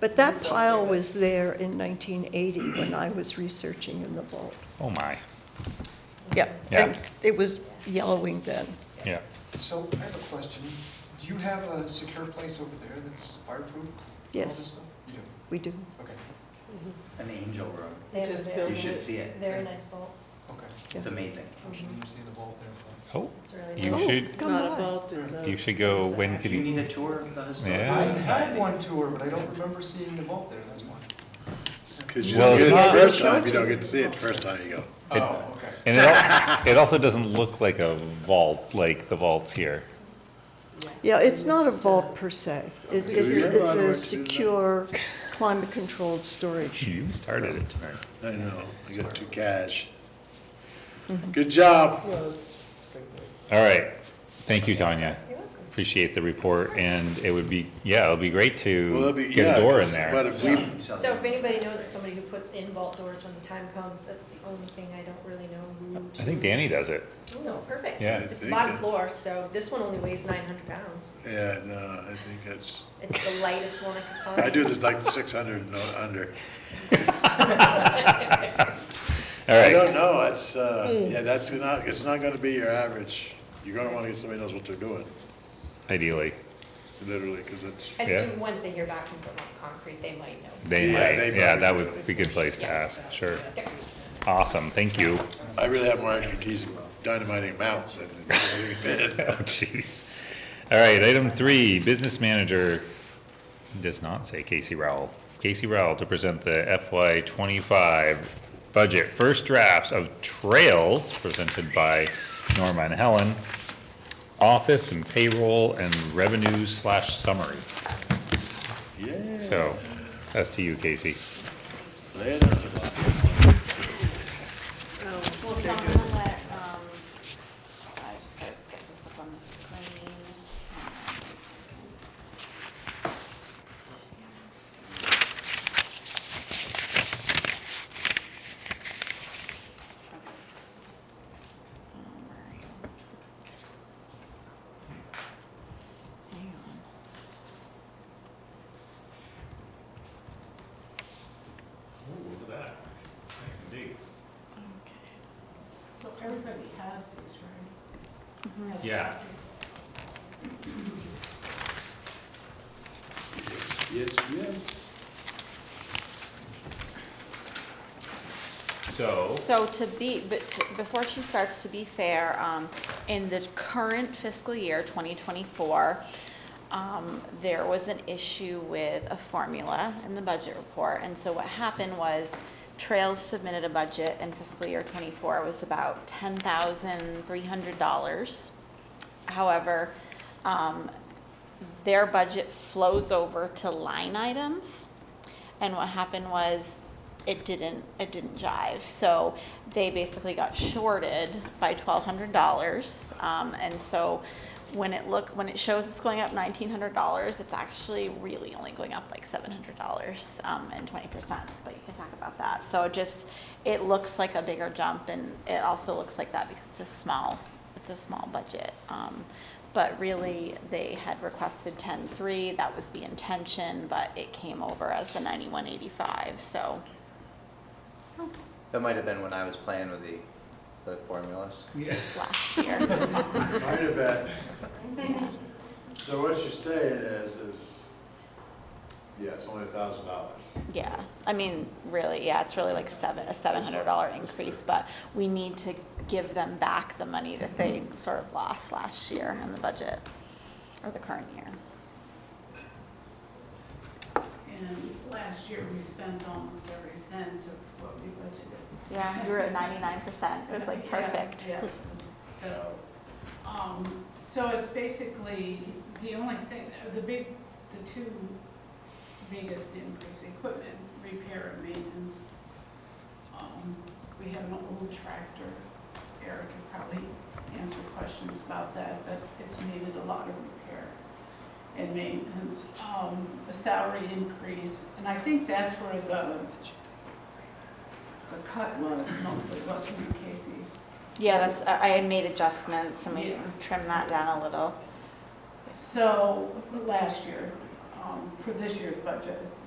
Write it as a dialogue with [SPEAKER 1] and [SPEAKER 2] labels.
[SPEAKER 1] But that pile was there in 1980 when I was researching in the vault.
[SPEAKER 2] Oh, my.
[SPEAKER 1] Yeah,
[SPEAKER 2] Yeah.
[SPEAKER 1] and it was yellowing then.
[SPEAKER 2] Yeah.
[SPEAKER 3] So I have a question. Do you have a secure place over there that's fireproof? all
[SPEAKER 1] Yes.
[SPEAKER 3] this stuff? You do,
[SPEAKER 1] We do.
[SPEAKER 3] okay,
[SPEAKER 4] An angel room.
[SPEAKER 5] They have a
[SPEAKER 6] Just
[SPEAKER 5] very,
[SPEAKER 6] build
[SPEAKER 4] You
[SPEAKER 6] it.
[SPEAKER 4] should see it.
[SPEAKER 5] very nice vault. Mm-hmm.
[SPEAKER 3] okay.
[SPEAKER 4] It's amazing.
[SPEAKER 3] I'm sure you see the vault there.
[SPEAKER 2] Oh,
[SPEAKER 5] It's really
[SPEAKER 2] You
[SPEAKER 5] nice.
[SPEAKER 1] Oh,
[SPEAKER 2] should-
[SPEAKER 1] come
[SPEAKER 6] Not a
[SPEAKER 1] on.
[SPEAKER 6] vault, it's a-
[SPEAKER 2] You should go
[SPEAKER 6] it's a
[SPEAKER 2] when
[SPEAKER 6] act-
[SPEAKER 4] Do you need a tour of the historical
[SPEAKER 2] Yeah.
[SPEAKER 3] I
[SPEAKER 4] society?
[SPEAKER 3] had one tour, but I don't remember seeing the vault there, that's why.
[SPEAKER 7] Because you
[SPEAKER 2] Well,
[SPEAKER 7] don't
[SPEAKER 2] it's
[SPEAKER 7] get it
[SPEAKER 2] not-
[SPEAKER 7] the first time, you don't get to see it the first time you go.
[SPEAKER 3] Oh, okay.
[SPEAKER 2] and it, al- it also doesn't look like a vault, like the vaults here.
[SPEAKER 1] Yeah, it's not a vault per se. It- It's,
[SPEAKER 7] Yeah.
[SPEAKER 1] it's a secure, climate-controlled storage.
[SPEAKER 2] You started it tonight.
[SPEAKER 7] I know, I got too cash. Good job.
[SPEAKER 6] Well, it's great.
[SPEAKER 2] All right. Thank you, Tanya. Appreciate the report, and it would be, yeah, it would be great
[SPEAKER 7] Well,
[SPEAKER 2] to
[SPEAKER 7] that'd be-
[SPEAKER 2] get
[SPEAKER 7] yeah,
[SPEAKER 2] a door
[SPEAKER 7] 'cause-
[SPEAKER 2] in
[SPEAKER 7] But
[SPEAKER 2] there.
[SPEAKER 7] if we,
[SPEAKER 5] So if anybody knows of somebody who puts in vault doors when the time comes, that's the only thing I don't really know who to.
[SPEAKER 2] I think Danny does it.
[SPEAKER 5] Oh, no, perfect.
[SPEAKER 2] Yeah.
[SPEAKER 5] It's
[SPEAKER 7] Very
[SPEAKER 5] bottom
[SPEAKER 7] good.
[SPEAKER 5] floor, so this one only weighs nine hundred pounds.
[SPEAKER 7] yeah, no, I think that's,
[SPEAKER 5] It's the lightest one I could find.
[SPEAKER 7] I do this like six hundred and under.
[SPEAKER 2] All
[SPEAKER 7] I
[SPEAKER 2] right.
[SPEAKER 7] don't know, it's, uh, yeah, that's not, it's not gonna be your average. You're gonna wanna get somebody who knows what they're doing,
[SPEAKER 2] Ideally,
[SPEAKER 7] literally, because it's,
[SPEAKER 5] I
[SPEAKER 2] Yeah.
[SPEAKER 5] assume once they hear back from Vermont Concrete, they might know.
[SPEAKER 2] they
[SPEAKER 7] Yeah,
[SPEAKER 2] might.
[SPEAKER 7] they
[SPEAKER 2] Yeah,
[SPEAKER 7] probably
[SPEAKER 2] that
[SPEAKER 7] do.
[SPEAKER 2] would be a good place to
[SPEAKER 5] Yeah.
[SPEAKER 2] ask. Sure.
[SPEAKER 5] There.
[SPEAKER 2] Awesome. Thank you.
[SPEAKER 7] I really have more expertise in dynamiting mounts than in building a bed.
[SPEAKER 2] Oh, jeez. All right, item three, business manager, does not say Casey Rowell. Casey Rowell to present the FY twenty-five budget, first drafts of trails presented by Norma and Helen, office and payroll and revenue slash summary.
[SPEAKER 7] Yeah.
[SPEAKER 2] So, that's to you, Casey.
[SPEAKER 7] lay it on the box.
[SPEAKER 8] Well, so I'm gonna let, um, I just gotta get this up on the screen. Okay. Um, where are you? Hang on.
[SPEAKER 6] So everybody has these, right?
[SPEAKER 8] Mm-hmm.
[SPEAKER 6] Has
[SPEAKER 2] Yeah.
[SPEAKER 6] Patrick.
[SPEAKER 7] Yes, yes.
[SPEAKER 2] So.
[SPEAKER 8] So to be, but to- before she starts, to be fair, um, in the current fiscal year, 2024, um, there was an issue with a formula in the budget report. And so what happened was Trails submitted a budget in fiscal year '24 was about $10,300. However, um, their budget flows over to line items. And what happened was it didn't it didn't jive. So they basically got shorted by twelve hundred dollars. Um, and so when it look when it shows it's going up nineteen hundred dollars, it's actually really only going up like seven hundred dollars um, and twenty percent. But you can talk about that. So it just it looks like a bigger jump, and it also looks like that because it's a small it's a small budget. Um, but really, they had requested ten-three, that was the intention, but it came over as the ninety-one eighty-five, so.
[SPEAKER 4] That might have been when I was playing with the, the formulas.
[SPEAKER 8] it's Last year,
[SPEAKER 7] Might have been. So what you're saying is, is, yeah, it's only a thousand dollars.
[SPEAKER 8] yeah, I mean, really, yeah, it's really like seven, a seven hundred dollar increase, but we need to give them back the money that they sort of lost last year in the budget, or the current year.
[SPEAKER 6] And last year, we spent almost every cent of what we budgeted.
[SPEAKER 8] Yeah, you were at ninety-nine percent, it was like
[SPEAKER 6] Yeah,
[SPEAKER 8] perfect.
[SPEAKER 6] yeah. So, um, so it's basically, the only thing, the big, the two biggest increase, equipment repair and maintenance. Um, We have an old tractor, Eric could probably answer questions about that, but it's needed a lot of repair and maintenance. Um, A salary increase, and I think that's where the, the cut was mostly, wasn't it, Casey?
[SPEAKER 8] Yeah, that's, I, I made adjustments and we
[SPEAKER 6] Yeah.
[SPEAKER 8] trimmed that down a little.
[SPEAKER 6] So, last year, um, for this year's budget,